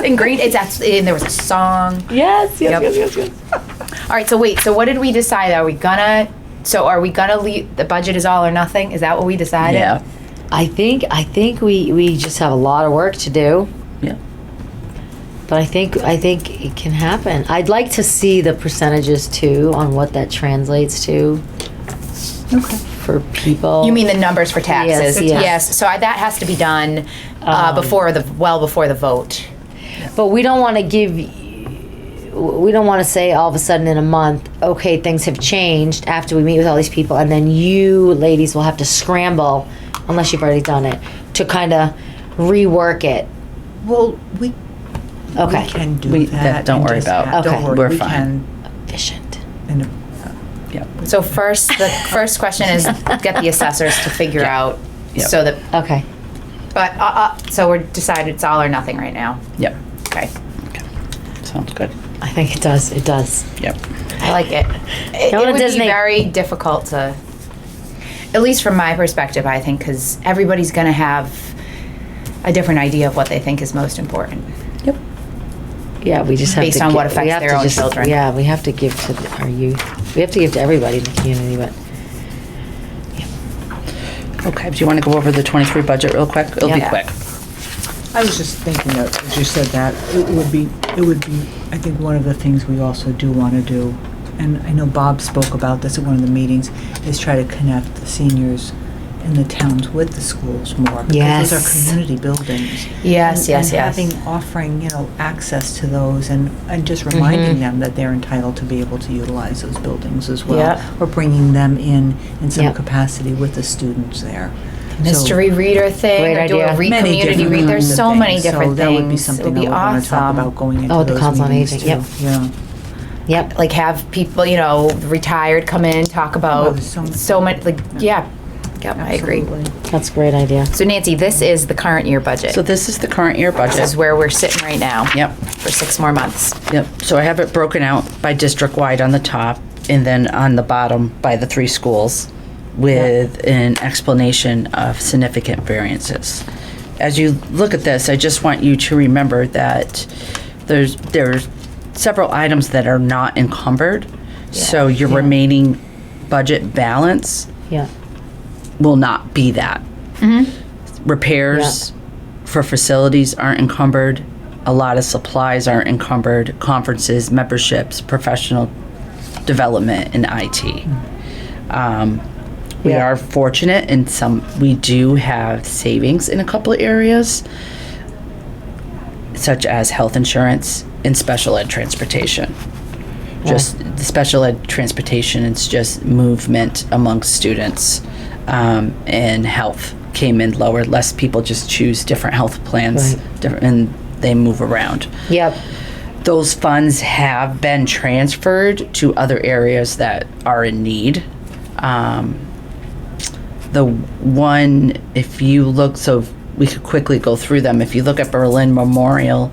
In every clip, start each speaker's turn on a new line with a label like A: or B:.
A: ingrained. It's actually, and there was a song.
B: Yes, yes,
A: Yep.
B: yes, yes, yes.
A: All right, so wait, so what did we decide? Are we gonna, so are we gonna leave, the budget is all or nothing? Is that what we decided?
B: Yeah,
C: I think I think we we just have a lot of work to do,
B: yeah.
C: but I think I think it can happen. I'd like to see the percentages too on what that translates to
B: Okay.
C: for people.
A: You mean the numbers for taxes?
C: Yes, Um, yes.
A: so I, that has to be done uh, before the, well before the vote.
C: But we don't want to give. We don't want to say all of a sudden in a month, okay, things have changed after we meet with all these people, and then you ladies will have to scramble, unless you've already done it, to kind of rework it.
D: Well, we, we
C: Okay,
D: can do
B: We-
D: that.
B: that- don't
D: and
B: worry
D: just
B: about.
D: have- Don't
C: Okay.
D: worry,
B: We're
D: we
B: fine.
D: can.
C: efficient.
D: and-
A: So first, the first question is get the assessors to figure out,
B: Yep.
A: so that,
C: Okay.
A: but, uh, uh, so we're decided it's all or nothing right now.
B: Yep.
A: Okay,
B: Sounds good.
C: I think it does. It does.
B: Yep.
A: I like it. It, it
C: Go to
A: would
C: Disney.
A: be very difficult to, at least from my perspective, I think, because everybody's going to have a different idea of what they think is most important.
B: Yep.
C: Yeah, we just have
A: Based
C: to
A: on
C: gi-
A: what
C: we
A: affects
C: have
A: their
C: to
A: own
C: just-
A: children.
C: Yeah, we have to give to th- our youth. We have to give to everybody in the community, but
B: Okay, do you want to go over the 23 budget real quick? It'll
A: Yeah.
B: be quick.
D: I was just thinking that, as you said that, it would be, it would be, I think one of the things we also do want to do, and I know Bob spoke about this at one of the meetings, is try to connect the seniors in the towns with the schools more. because
C: Yes.
D: Those are community buildings.
A: Yes,
D: And-
A: yes, yes.
D: and having, offering, you know, access to those and, and just
A: Mm-hmm.
D: reminding them that they're entitled to be able to utilize those buildings as well.
A: Yep.
D: Or bringing them in, in some
C: Yep.
D: capacity with the students there. So-
A: Mystery reader thing,
C: Great
A: or do a
C: idea.
A: re-
D: Many
A: community
D: different
A: read. There's
D: kinds
A: so
D: of
A: many
D: things. So
A: different
D: that would be
A: things. It would
D: something
A: be
D: I would wanna talk
A: awesome.
D: about going into
C: Oh, the
D: those
C: Council on
D: meetings
C: Aging, yep.
D: too. Yeah.
C: yep.
A: Like have people, you know, retired come in, talk
D: Oh,
A: about
D: there's so
A: so,
D: much-
A: much, like, yeah. Yep, I agree.
D: Absolutely.
C: That's a great idea.
A: So Nancy, this is the current year budget.
B: So this is the current year
A: this is
B: budget.
A: where we're sitting right now.
B: Yep.
A: For six more months.
B: Yep. So I have it broken out by district wide on the top and then on the bottom by the three schools with an explanation of significant variances. As you look at this, I just want you to remember that there's there's several items that are not encumbered. So your remaining budget balance
C: Yeah.
B: will not be that. Repairs for facilities aren't encumbered. A lot of supplies aren't encumbered. Conferences, memberships, professional development, and IT. Um, we
C: Yeah.
B: are fortunate in some, we do have savings in a couple of areas, such as health insurance and special ed transportation. Just the special ed transportation, it's just movement amongst students um, and health came in lower. Less people just choose different health plans
C: Right.
B: different, and they move around.
C: Yep.
B: Those funds have been transferred to other areas that are in need. Um, the one, if you look, so we could quickly go through them. If you look at Berlin Memorial,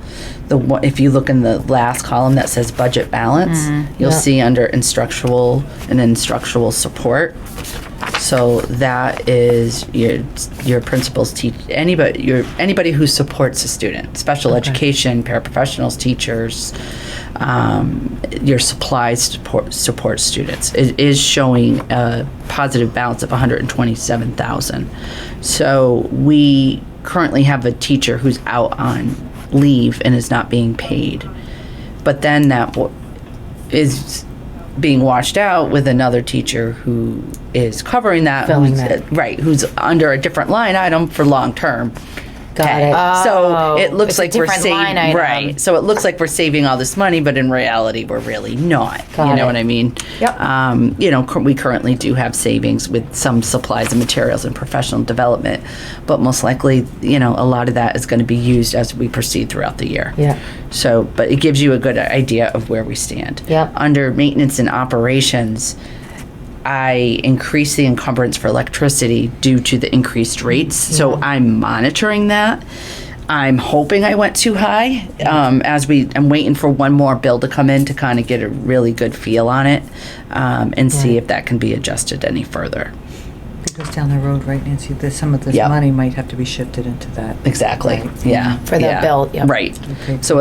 B: the one, if you look in the last column that says budget balance, you'll
C: Yeah.
B: see under instructional and instructional support. So that is your your principals teach anybody your anybody who supports a student, special education, paraprofessionals, teachers, um, your supplies support support students. It is showing a positive balance of 127,000. So we currently have a teacher who's out on leave and is not being paid, but then that wa- is being washed out with another teacher who is covering that,
C: Filling
B: who's-
C: that.
B: right, who's under a different line item for long term.
C: Got it.
A: Oh,
B: so it
A: it's
B: looks
A: a
B: like we're
A: different line
B: saving
A: item.
B: right. So it looks like we're saving all this money, but in reality, we're really not. you
C: Got
B: know
C: it.
B: what I mean?
A: Yep.
B: Um, you know, cur- we currently do have savings with some supplies and materials and professional development, but most likely, you know, a lot of that is going to be used as we proceed throughout the year.
C: Yeah.
B: So, but it gives you a good idea of where we stand.
C: Yep.
B: Under maintenance and operations, I increased the encumbrance for electricity due to the increased rates. So I'm monitoring that. I'm hoping I went too high. Um, as we, I'm waiting for one more bill to come in to kind of get a really good feel on it um, and see if that can be adjusted any further.
D: goes down the road, right, Nancy? There's some of this
B: Yep.
D: money might have to be shifted into that.
B: Exactly, yeah.
A: For the
B: yeah.
A: bill, yep.
B: Right.
D: Okay.
B: So